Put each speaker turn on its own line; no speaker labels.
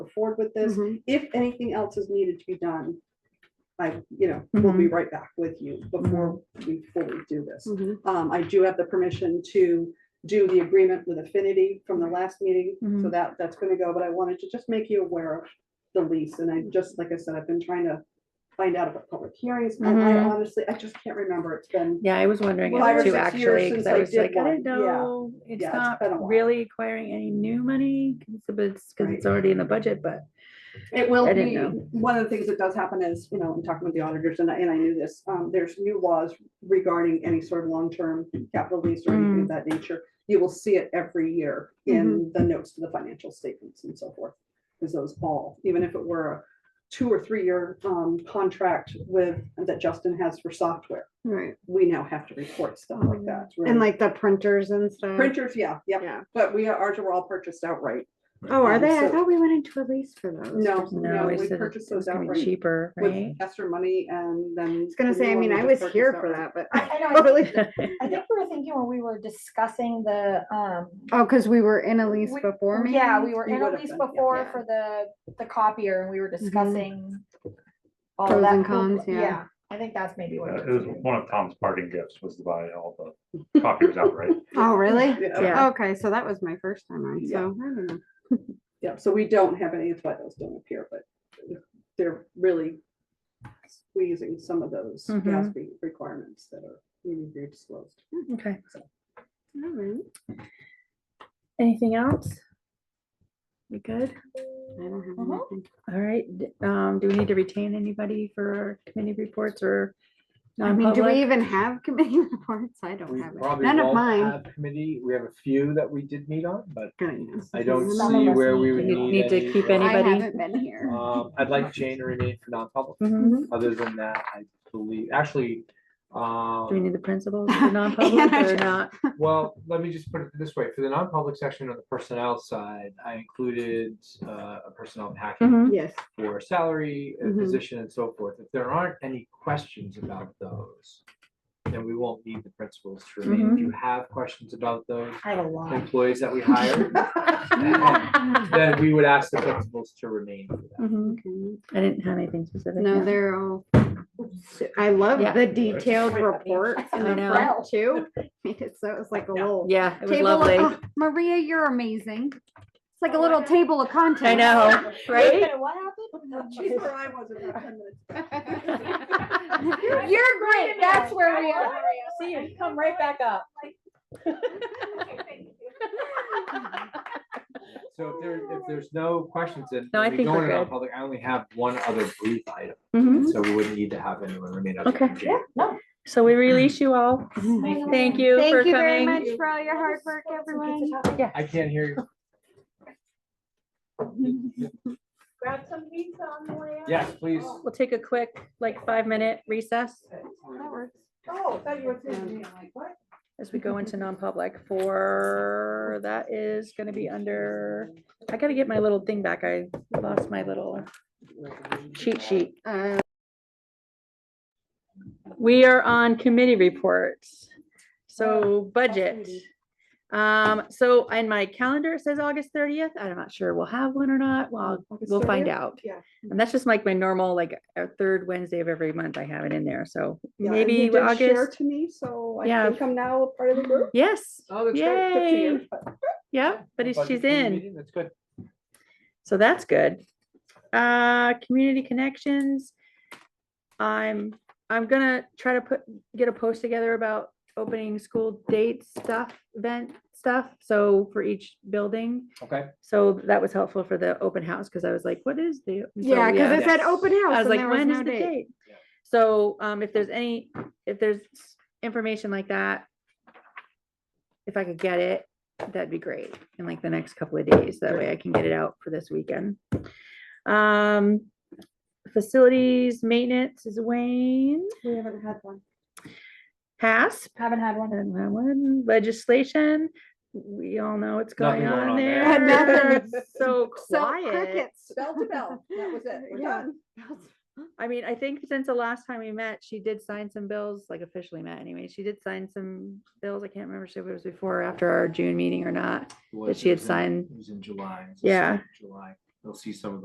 forward with this.
Mhm.
If anything else is needed to be done, I, you know, we'll be right back with you before, we fully do this.
Mhm.
Um, I do have the permission to do the agreement with Affinity from the last meeting, so
Mhm.
that, that's gonna go, but I wanted to just make you aware of the lease, and I just, like I said, I've been trying to find out about public hearings, and I
Mhm.
honestly, I just can't remember, it's been,
Yeah, I was wondering
Five
it
or
too,
six years
actually, because
since
I
I
was
did
like, I
one.
didn't
Yeah.
know, it's
Yeah, it's
not
been a while.
really acquiring any new money, because it's, because it's already in the budget, but.
it will
I didn't
be,
know.
one of the things that does happen is, you know, I'm talking with the auditors, and I, and I knew this, um, there's new laws regarding any sort of long-term capital lease or
Mm.
anything of that nature, you will see it every year
Mm-hmm.
in the notes to the financial statements and so forth, because those all, even if it were a two or three-year, um, contract with, that Justin has for software,
Right,
we now have to report stuff like that. It's really-
and like the printers and stuff.
Printers, yeah, yeah,
Yeah.
but we are, ours are all purchased outright.
Oh, are
Um,
they? I
so-
thought we went into a lease for those.
No,
for some
No,
no,
reason.
it
we
said
purchased
it's
those
gonna be
outright
cheaper, right?
with Esther money and then.
I was gonna say, I mean, I was here for that, but
I- I know, I
totally.
I think we were thinking when we were discussing the, um.
Oh, because we were in a lease
we-
before me?
Yeah, Mm-hmm. we were
You
in a
would've
lease
been, yeah.
before
Yeah.
for the, the copier and we were discussing. all
Pros
that
and
cool-
cons, yeah.
I think that's maybe what.
Yeah,
it
Uh, It was
was.
one of Tom's parting gifts was to buy all the copiers outright.
Oh, really?
Yeah,
Yeah.
Okay, so that was my first time on,
Yeah.
so I don't know.
yeah, so we don't have any, that's why those don't appear, but they're really squeezing some of those
Mhm.
Mm-hmm.
GASB requirements that are needing to be disclosed.
Okay,
All right.
anything else? We good?
I don't have
Mm-hmm.
Mhm.
anything.
All right, d- um, do we need to retain anybody for committee reports or
I mean, do we
non-public?
even have committee reports? I don't
We
have it.
probably
None of
won't
mine.
have Committee, we have a few that we did meet on, but
Good, yes.
I don't
Some of
see
us
where
need
we
to
would
meet on. Need
need
to
any.
keep
more.
I
anybody?
haven't been here.
Um, I'd like Jane to remain for non-public.
Mm-hmm.
Mhm.
Other than that, I believe, actually,
Do we
um,
need the principals for non-public
I
or
just-
not?
well, let me just put it this way. For the non-public section on the personnel side, I included uh, a personnel and hacking
Mhm.
Yes.
for salary, uh,
Mhm.
position and so forth. If there aren't any questions about those, then we won't need the principals to remain. If you have questions about those
I have a lot.
employees that we hire, then we would ask the principals to remain. for that.
Mhm.
Okay.
I didn't have anything specific.
No, they're all, I love
Yeah.
the detailed
Right.
reports in the
I know.
front too. Made it So it was like a little.
Yeah, it was
table of-
lovely.
oh, Maria, you're amazing. It's like a little table of content.
I know,
Wait a
right?
minute, What happened?
She's where I was about ten minutes ago.
You're great. That's where we are.
See, you come right back up.
So if there, if there's no questions, then
No, I
we
think
go
we're
into
good.
non-public, I only have one other brief item,
Mhm.
so we wouldn't need to have anyone remain. other
Okay.
than Jane.
So we release you all. Thank you for
Thank you very
coming.
much for all your hard work, everyone.
I can't hear you.
Grab some pizza on the way
Yes, please.
We'll take a quick, like, five-minute recess
Oh, I thought you were
saying,
what?
as we go into non-public for, that is gonna be under, I gotta get my little thing back. I lost my little cheat sheet.
Uh,
We are on committee reports. So
Ah,
budget. Um, so in my calendar, it says August thirtieth. I'm not sure we'll have one or not. Well,
August
we'll find
30th?
out.
Yeah.
And that's just like my normal, like, uh, third Wednesday of every month I have it in there. So
Yeah, and you
maybe
did share
August.
To me, so I
Yeah.
think I'm now a part of the group.
Yes.
Oh, that's great.
Good to
Yay.
you.
Yeah, but it's-
Budget
she's
committee
in.
meeting, That's good.
So that's good. Uh, community connections. I'm, I'm gonna try to put, get a post together about opening school date stuff, event stuff, so for each building.
Okay.
So that was helpful for the open house, because I was like, what is the? and so,
Yeah, because it
yeah.
said open house.
I was
and
like,
there was
when is
no
the date?
Yeah.
So, um, if there's any, if there's information like that, if I could get it, that'd be great in like the next couple of days. That way I can get it out for this weekend. Um, facilities maintenance is Wayne,
We haven't had one.
HASP,
Haven't had one.
and that one, legislation. We all know what's going
Nothing going
on
on
there.
there.
Nothing.
It's So
So
quiet.
crickets.
Bell to bell, that was it, we're
Yeah.
done.
I mean, I think since the last time we met, she did sign some bills, like officially met anyway. She did sign some bills. I can't remember if it was before or after our June meeting or not.
Was-
she had
it was in-
signed-
It was in July. it was the
Yeah.
second July. You'll see some of